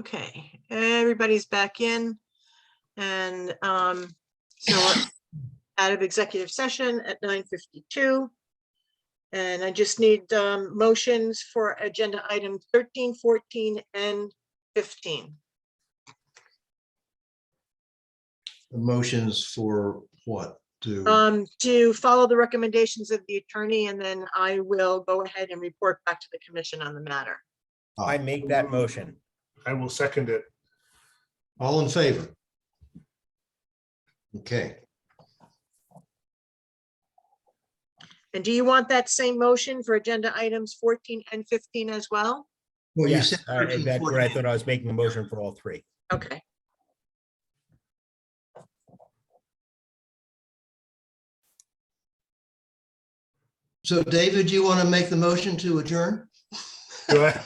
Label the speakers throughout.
Speaker 1: Okay, everybody's back in. And um, so we're out of executive session at nine fifty-two. And I just need um, motions for agenda item 13, 14, and fifteen.
Speaker 2: The Motions for what? To,
Speaker 1: Um, to follow the recommendations of the attorney, and then I will go ahead and report back to the commission on the matter.
Speaker 3: Oh.
Speaker 4: I make that motion.
Speaker 5: I will second it.
Speaker 2: all in favor? Okay,
Speaker 1: And do you want that same motion for agenda items fourteen and fifteen as well?
Speaker 2: well, you
Speaker 4: Yes,
Speaker 2: said
Speaker 3: uh,
Speaker 4: I- I-
Speaker 2: 13,
Speaker 4: that's what I
Speaker 2: 14.
Speaker 4: thought I was making a motion for all three.
Speaker 1: Okay,
Speaker 2: so David, you want to make the motion to adjourn?
Speaker 5: Do I,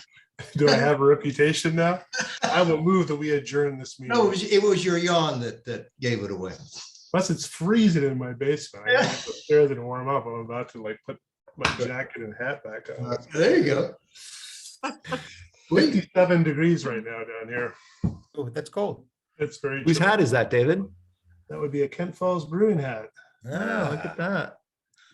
Speaker 5: do I have a reputation now? I will move that we adjourn this
Speaker 2: No, it
Speaker 5: meeting.
Speaker 2: was, it was your yawn that, that gave it away.
Speaker 5: Plus, it's freezing in my basement. I
Speaker 2: Yeah.
Speaker 5: have to go upstairs and warm up. I'm about to like put my jacket and hat back on.
Speaker 2: Uh, There you go. We,
Speaker 5: Fifty-seven degrees right now down here.
Speaker 4: Oh, that's cold.
Speaker 5: It's very.
Speaker 3: Whose
Speaker 5: chilly.
Speaker 3: hat is that, David?
Speaker 5: That would be a Kent Falls Brewing hat.
Speaker 3: Ah, look
Speaker 4: Ah,
Speaker 3: at that.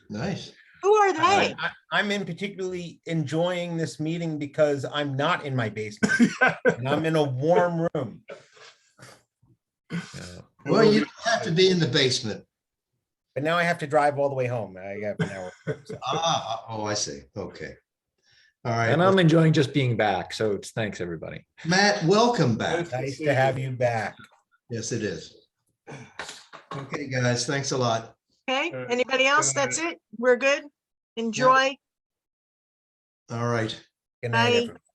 Speaker 2: nice.
Speaker 1: who are
Speaker 4: I-
Speaker 1: they?
Speaker 4: I- I'm in particularly enjoying this meeting because I'm not in my basement and I'm in a warm room.
Speaker 3: Yeah.
Speaker 2: Well, you don't have to be in the basement.
Speaker 4: But now I have to drive all the way home. I have an hour. so.
Speaker 2: Ah, oh, I see. Okay. All right.
Speaker 3: And I'm enjoying just being back. So it's thanks, everybody.
Speaker 2: Matt, welcome back.
Speaker 4: Nice to have you back.
Speaker 2: Yes, it is. Okay, guys, thanks a lot.
Speaker 1: Okay,
Speaker 5: Uh,
Speaker 1: anybody else? That's it? We're good? Enjoy.
Speaker 2: All right.
Speaker 4: Good night,
Speaker 1: Bye.
Speaker 4: everyone.